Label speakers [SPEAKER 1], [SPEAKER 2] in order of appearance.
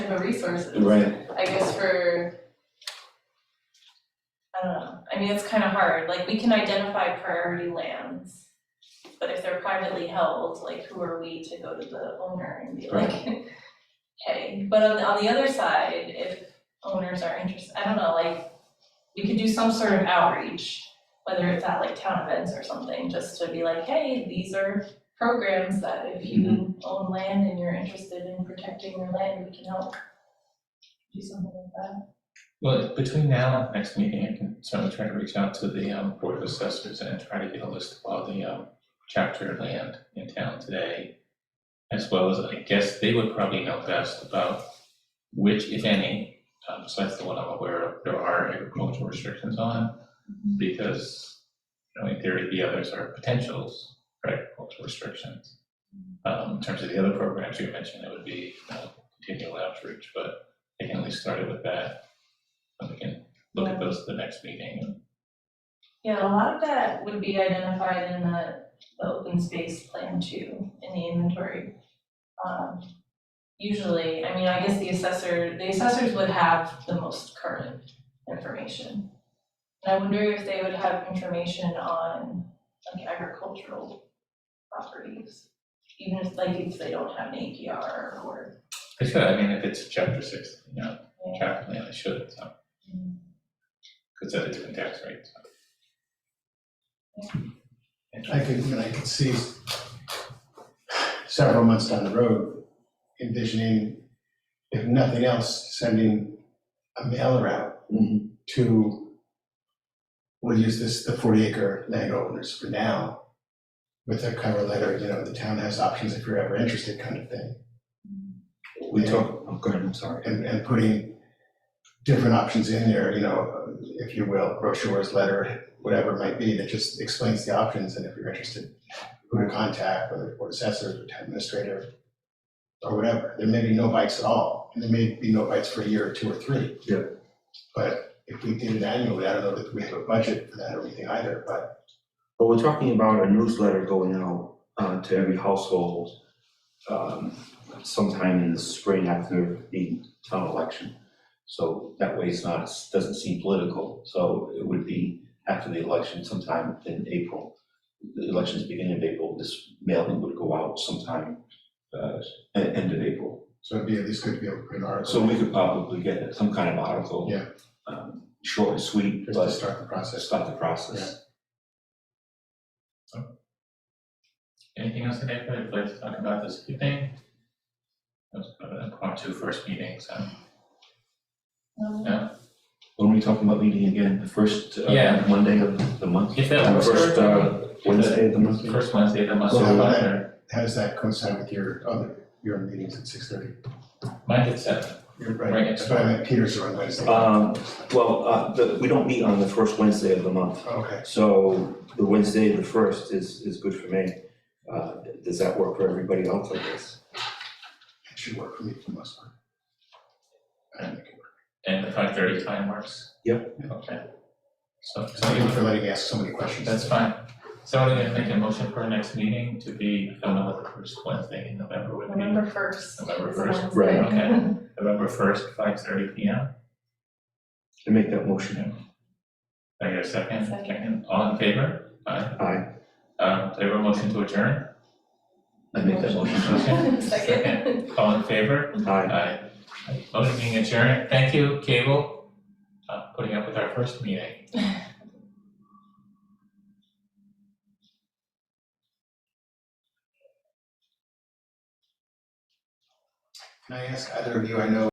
[SPEAKER 1] for resources.
[SPEAKER 2] Right,
[SPEAKER 1] I guess for. I don't know, I mean, it's kind of hard, like, we can identify priority lands. But if they're privately held, like, who are we to go to the owner and be like, hey, but on the, on the other side, if owners are interested, I don't know, like. We could do some sort of outreach, whether it's at like town events or something, just to be like, hey, these are programs that if you own land and you're interested in protecting your land, we can help. Do something like that.
[SPEAKER 3] Well, between now and next meeting, I can certainly try to reach out to the um, Board of Assessors and try to get a list of all the um, chapter land in town today. As well as, I guess they would probably know best about which, if any, um, besides the one I'm aware of, there are agricultural restrictions on. Because, you know, in theory, the others are potentials for agricultural restrictions. Um, in terms of the other programs you mentioned, it would be, you know, continual outreach, but they can at least start it with that. And we can look at those at the next meeting and
[SPEAKER 1] Yeah, a lot of that would be identified in the, the open space plan too, in the inventory. Um, Usually, I mean, I guess the assessor, the assessors would have the most current information. And I wonder if they would have information on like agricultural properties, even if like if they don't have an APR or.
[SPEAKER 3] they should, I mean, if it's chapter six, you know,
[SPEAKER 1] Yeah.
[SPEAKER 3] chapter land, they should, so. Because at a different tax rate, so.
[SPEAKER 4] I could, and I could see several months down the road envisioning, if nothing else, sending a mailer out
[SPEAKER 2] Mhm.
[SPEAKER 4] to, we'll use this, the forty acre landowners for now, with a cover letter, you know, the town has options if you're ever interested kind of thing.
[SPEAKER 2] we
[SPEAKER 4] Yeah.
[SPEAKER 2] talked, oh, go ahead, I'm sorry.
[SPEAKER 4] and, and putting different options in there, you know, if you will, brochures, letter, whatever it might be, that just explains the options, and if you're interested, who to contact, whether board assessor, or town administrator, or whatever, there may be no bites at all, and there may be no bites for a year or two or three.
[SPEAKER 2] Yeah.
[SPEAKER 4] But if we did it annually, I don't know that we have a budget for that or anything either, but
[SPEAKER 2] But we're talking about a newsletter going out uh, to every household um, sometime in the spring after the town election. So that way it's not, doesn't seem political, so it would be after the election sometime in April. The election's beginning of April, this mailing would go out sometime uh, e- end of April.
[SPEAKER 4] so it'd be at least good to be able to put an article.
[SPEAKER 2] So we could probably get some kind of article.
[SPEAKER 4] Yeah.
[SPEAKER 2] um, Short and sweet,
[SPEAKER 4] Just to
[SPEAKER 2] but
[SPEAKER 4] start the process.
[SPEAKER 2] start the process.
[SPEAKER 3] Anything else that anybody would like to talk about this evening? That was kind of an impromptu first meeting, so.
[SPEAKER 1] Um,
[SPEAKER 2] When are we talking about meeting again, the first uh,
[SPEAKER 3] Yeah.
[SPEAKER 2] Monday of the month?
[SPEAKER 3] If that works for
[SPEAKER 2] First, uh,
[SPEAKER 3] everybody.
[SPEAKER 2] Wednesday of the month?
[SPEAKER 3] First Wednesday of the month,
[SPEAKER 4] So
[SPEAKER 3] so
[SPEAKER 4] how
[SPEAKER 3] about
[SPEAKER 4] that-
[SPEAKER 3] there.
[SPEAKER 4] How does that coincide with your other, your meetings at six thirty?
[SPEAKER 3] Mine at seven.
[SPEAKER 4] You're
[SPEAKER 3] Right.
[SPEAKER 4] right, that's why I meant Peters are on Wednesday.
[SPEAKER 2] Um, Well, uh, the- we don't meet on the first Wednesday of the month,
[SPEAKER 4] Oh, Okay.
[SPEAKER 2] so the Wednesday, the first is, is good for me. Uh, Does that work for everybody else, I guess?
[SPEAKER 4] It should work for me for the most part. I don't think it works.
[SPEAKER 3] And the five thirty time works?
[SPEAKER 2] Yep.
[SPEAKER 3] Okay. So, so
[SPEAKER 4] Thank
[SPEAKER 3] you-
[SPEAKER 4] you for letting me ask so many questions.
[SPEAKER 3] that's fine. Someone gonna make a motion for our next meeting to be, I don't know what the first Wednesday in November would be.
[SPEAKER 1] November first.
[SPEAKER 3] November first,
[SPEAKER 2] right,
[SPEAKER 3] okay. November first, five thirty P M.
[SPEAKER 2] To make that motion,
[SPEAKER 3] I hear a second,
[SPEAKER 1] Second.
[SPEAKER 3] second, all in favor? Aye.
[SPEAKER 2] aye,
[SPEAKER 3] Um, do I have a motion to adjourn?
[SPEAKER 2] I make that motion,
[SPEAKER 1] Second.
[SPEAKER 3] All in favor?
[SPEAKER 2] aye.
[SPEAKER 3] Aye. Motion being adjourned. Thank you, Cable, uh, putting up with our first meeting.
[SPEAKER 4] Can I ask either of you, I know